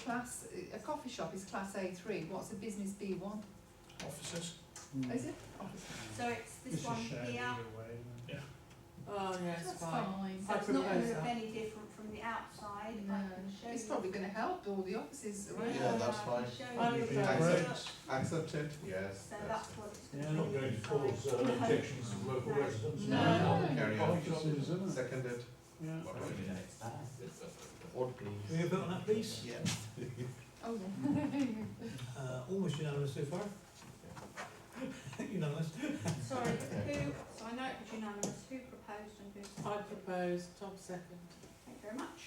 class, a coffee shop is class A three, what's a business B one? offices. Hmm. Mm. Is it? Office. So it's this one here, Oh, yeah, it's That's fine. fine. so I it's not propose gonna that. look any different from the outside, I No. can show you. It's probably gonna help all the offices around. Oh, Yeah, that's I can fine. show you. I would So prefer- look, Accepted? Yes. So that's what it's Yeah. gonna Not be going to cause inside. uh, objections of local No. residents. No. Carry on. Offices, isn't it? Seconded? Yeah. Or please? Can we vote on that, please? Yeah. Oh, yeah. Uh, almost unanimous so far. Unanimous. Sorry, who, so I know it was unanimous, who proposed and I who seconded? propose, Tom second. Thank you very much.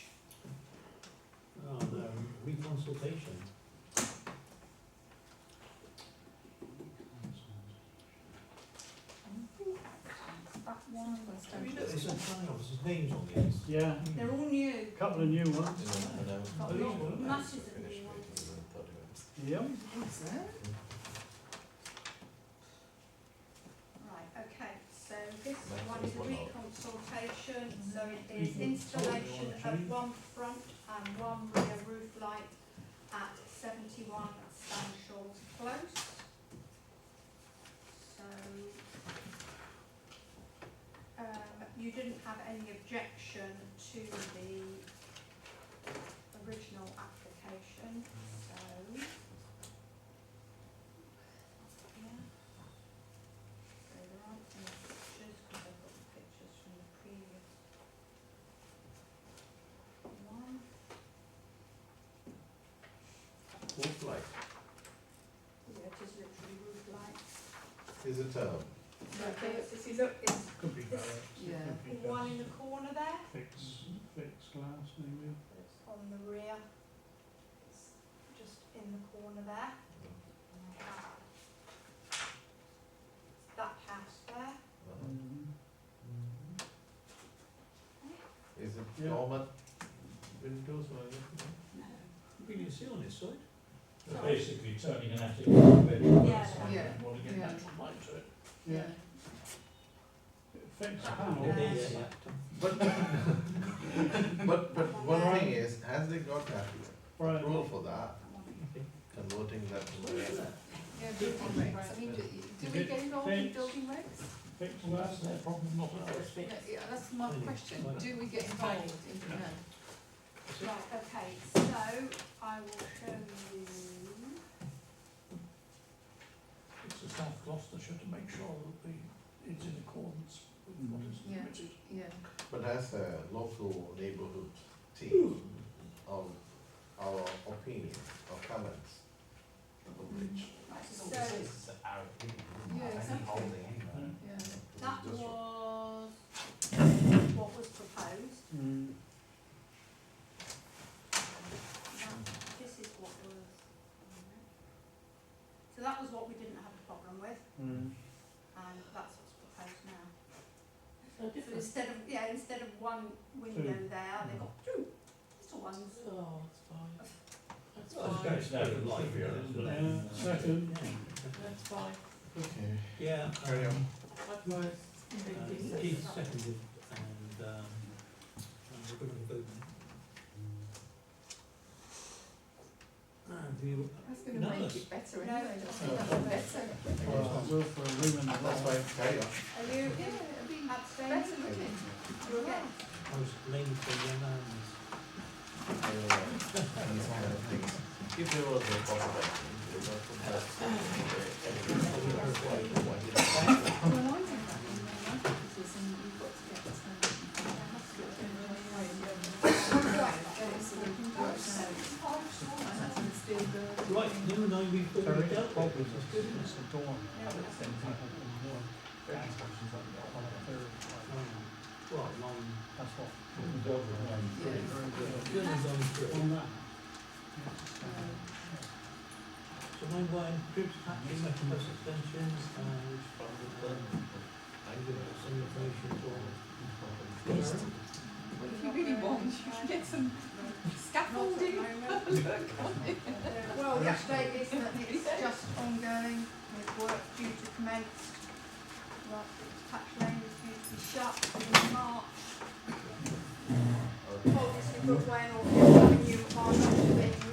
Oh, no, reconsultation. That one, Let's Have you go. noticed there's some officers' names on these? Yeah, they're all new, couple of new ones. masses of new ones. uh, Yep. What's that? Right, okay, so this That's one is a what I- reconsultation, so it is installation of one front and one rear roof light at seventy-one Stanshaw's Close. So, um, you didn't have any objection to the original application, uh, so. Yeah. So there aren't any pictures, because I've got the pictures from the previous one. Who's like, Yeah, it is literally roof lights. is it, um, So it's- if you look, it's Could be barracks, Yeah. it could be the one in the corner there, Fix, Mm-hmm. fix glass maybe. it's on the rear. It's just in the corner there. That house there. uh, is it Yeah. normal windows or anything? We can see on this side. They're Basically turning an attic into a bedroom. Yeah. Yeah. Want to get Yeah. natural light to it. Yeah. It affects the Ah, panel. Yeah. But, but, but one thing is, has they got that Right. rule for that, That one. converting that to a, Yeah, building regs. I mean, do, do we get involved in building regs? Fix that's their problem, not ours. It's a bit- No, Yeah, that's my question. Do we get involved in, no? Right, okay, so I will show you. It's a South Gloucestershire to make sure that the, it's in accordance with what is Yeah. permitted. Yeah. but as a local neighborhood team Hmm. of our opinion or comments of which. Right, so Yeah, exactly. Yeah. That was what was proposed, Mm-hmm. Mm. that, this is what was. So that was what we didn't have a problem with, Mm. and that's what's proposed now. So So different. instead of, yeah, instead of one window there, they've got two little ones. Oh, it's fine. Well, That's fine. it's very good light here, isn't it? Yeah, second. That's fine. Okay. Yeah. Carry on. um, I propose. Uh, Keith seconded and, um, and we're going to vote now. And we, That's gonna make Nice. it better No, anyway. it's That's not. gonna make it better. Well, Will for a room and a That's half. why, carry on. Are you Yeah, it'd be abstaining? better, wouldn't it? You're against? I was blamed for the amendments. If there was a possibility, they would Well, I did that in my life, because then you've got to get this done. There has to be a general way of doing it. Right, so we can do it now. And that's in steel building. Right, number nine, we've Sorry, already dealt Bob with. was That's good, isn't It's it? a dorm. That's Um, Well, nine, what. good and nine three. On that. So nine one, groups acting with plus extensions, uh, which followed the, some information for. Well, if you really want, you can get some scaffolding. Well, the update is that it's just ongoing with work due to commence. Well, Patch Lane is due to be shut in March. Obviously, Brookway and Orchard Avenue are not being